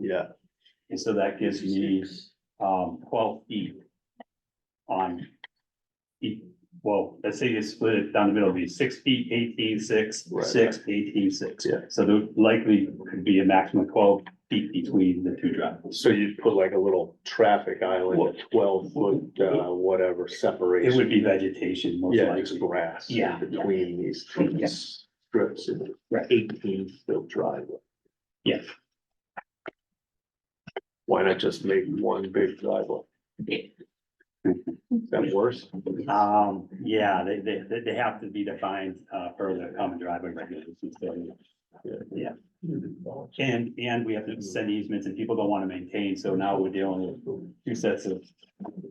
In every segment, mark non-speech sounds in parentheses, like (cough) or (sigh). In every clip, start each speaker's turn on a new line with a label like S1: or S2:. S1: Yeah.
S2: And so that gives me, um, twelve feet on each- well, let's say you split it down the middle, it'd be six feet, eighteen, six,
S1: Right.
S2: six, eighteen, six.
S1: Yeah.
S2: So there likely could be a maximum of twelve feet between the two driveways.
S1: So you'd put like a little traffic
S2: Well-
S1: island, twelve foot, uh, whatever
S2: It
S1: separation.
S2: would be vegetation most
S1: Yeah, just
S2: likely.
S1: grass. in
S2: Yeah.
S1: Between these
S2: Yeah.
S1: two strips and
S2: Right.
S1: eighteen foot driveway.
S2: Yeah.
S1: Why not just make one big driveway? Is that worse?
S2: Um, yeah, they, they, they- they have to be defined, uh, per the common driveway regulations. so- Yeah. And, and we have
S3: Hmm.
S2: to send easements and people don't want to maintain, so now we're dealing with two sets of,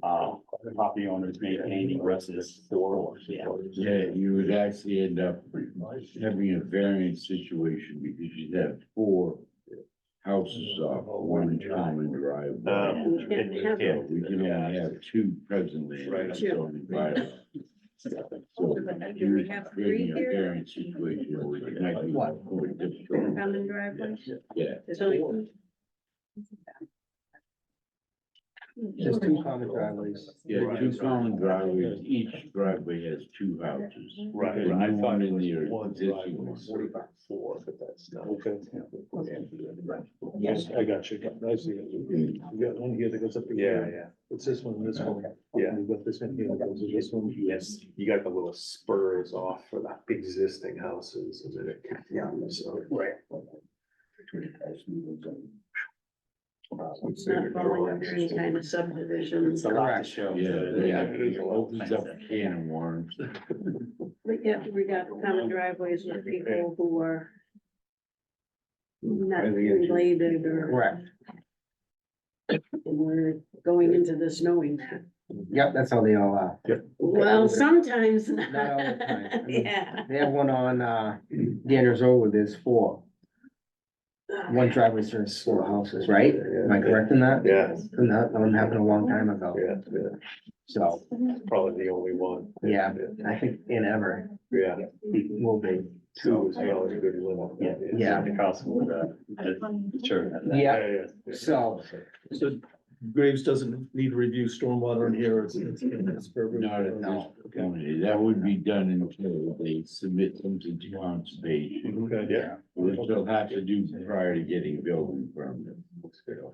S2: uh, property owners maintaining versus. Yeah.
S4: Yeah, you would actually end up having a variance situation because you'd have four houses off one common driveway.
S1: Um,
S4: So Uh, We can only have two presently. in the
S1: Right.
S4: zoning
S5: (laughs)
S4: bylaw. So
S5: Do
S4: you're
S5: we have three
S4: creating a
S5: here?
S4: variance situation which might be more difficult.
S5: Common driveways?
S4: Yeah.
S5: So- Hmm.
S3: There's two common driveways.
S4: Yeah, two
S1: Right.
S4: common driveways, each driveway has two houses.
S1: Right,
S4: The
S1: I
S4: new
S1: thought
S4: one
S1: it
S4: and
S1: was
S4: the
S1: one
S4: existing
S1: driveway,
S4: one.
S1: forty by four, but that's not.
S3: Yes, I got you. I see. You got one here that goes up. to
S1: Yeah,
S3: here.
S1: yeah,
S3: It's this one, this one.
S1: Yeah.
S3: You got this one here, that goes to this one.
S1: yes, you got the little spurs off for the existing houses and then it, yeah, so.
S2: Right.
S1: Uh,
S5: It's not falling under any kind of subdivision.
S2: It's a lot to show.
S4: Yeah,
S1: It is
S4: yeah,
S1: a
S4: opens up a can of worms.
S5: We got, we got common driveways with people who are not related or.
S3: Correct.
S5: And we're going into this knowing that.
S3: Yep, that's how they all are.
S5: Well, sometimes
S3: Not all the
S5: (laughs)
S3: time.
S5: Yeah.
S3: They have one on, uh, Danner's Road where there's four, one driveway serves four houses, right? Am I correct in that?
S1: Yeah,
S3: And that one happened a long time ago,
S1: yeah, yeah,
S3: so,
S1: probably the only one.
S3: yeah, I think in ever
S1: Yeah,
S3: will be.
S1: two is probably a good limit.
S2: Yeah.
S3: Yeah.
S2: Across with the, the church.
S3: Yeah.
S1: yeah.
S3: So-
S6: So Graves doesn't need to review stormwater in here, it's, it's. it's perfect.
S4: Not at
S3: No.
S4: Only That would be done until they submit something to conservation,
S1: Okay, yeah.
S4: which they'll have to do prior to getting a building permit.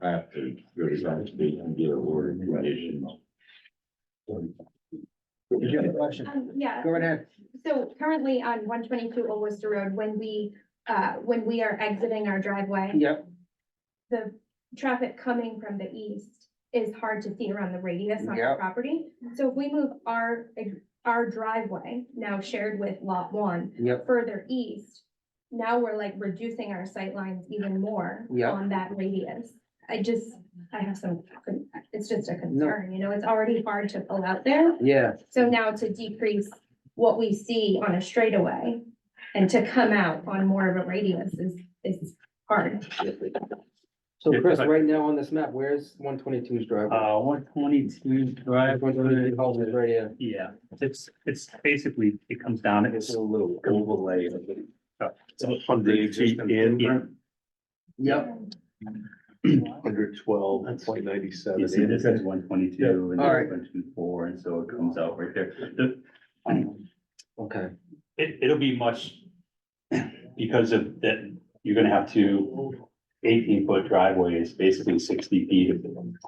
S4: Have to go to conservation and get a word condition.
S3: Did you have a question?
S7: Um, yeah,
S3: Go right ahead.
S7: so currently on one twenty-two Old Worcester Road, when we, uh, when we are exiting our driveway,
S3: Yep,
S7: the traffic coming from the east is hard to see around the radius on
S3: Yeah.
S7: our property. So if we move our, our driveway, now shared with lot one,
S3: yep,
S7: further east, now we're like reducing our sightlines even more
S3: Yeah.
S7: on that radius. I just, I have some, it's just a concern, you know, it's already hard to pull out there.
S3: yeah,
S7: So now to decrease what we see on a straightaway and to come out on more of a radius is, is hard.
S8: So
S2: Yeah,
S8: Chris,
S2: I-
S8: right now on this map, where's one twenty-two's driveway?
S2: Uh, one twenty-two drive.
S8: One twenty-two houses right here.
S2: Yeah, it's, it's basically, it comes down, it's a little overlay of the.
S1: a hundred feet in.
S2: Yeah.
S3: yep,
S1: Hundred twelve point ninety-seven.
S2: You see, this is one twenty-two and
S3: All right.
S2: one twenty-four, and so it comes out right there. The- um,
S8: Okay.
S2: It, it'll be much, because of that, you're gonna have two eighteen-foot driveways, basically sixty feet of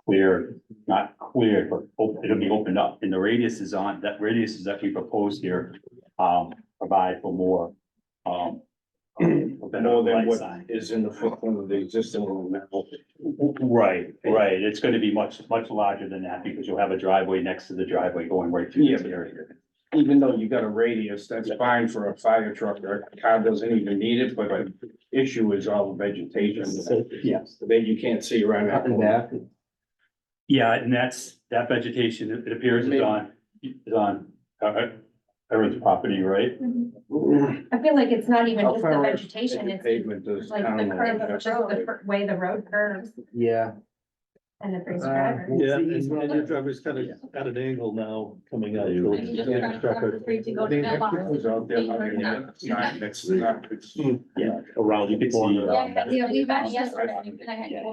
S2: clear, not clear, but op- it'll be opened up, and the radius is on, that radius is actually proposed here, um, provide for more,
S4: (clears throat)
S2: um, um, a better
S4: More than
S2: light
S4: what
S2: sign.
S4: Is in the footprint of the existing one now.
S2: Right, right, it's gonna be much, much larger than that, because you'll have a driveway next to the driveway going right through this area.
S9: even though you got a radius, that's fine for a fire truck or a car doesn't even need it, but the issue is all the vegetation.
S2: Yes.
S9: Then you can't see around
S8: Up
S9: that.
S8: and back.
S2: Yeah, and that's, that vegetation, it it appears is on, is on, uh, Erin's property, right?
S7: I feel like it's not even
S9: How
S7: just the
S9: far is
S7: vegetation,
S9: The
S7: it's
S9: Pavement does
S7: like the curve,
S9: town.
S7: just the fir- way the road curves
S8: Yeah.
S7: and the first
S8: Uh,
S7: driver.
S8: we'll
S6: Yeah,
S8: see.
S6: and and your driver's kind of at an angle now coming out.
S4: Yeah.
S6: towards the end of traffic.
S9: Goes out there, I mean, that's not- that's not- it's-
S1: Around.
S2: You can see,
S1: the corner.
S2: um,
S7: Yeah, yeah, we met yesterday and I had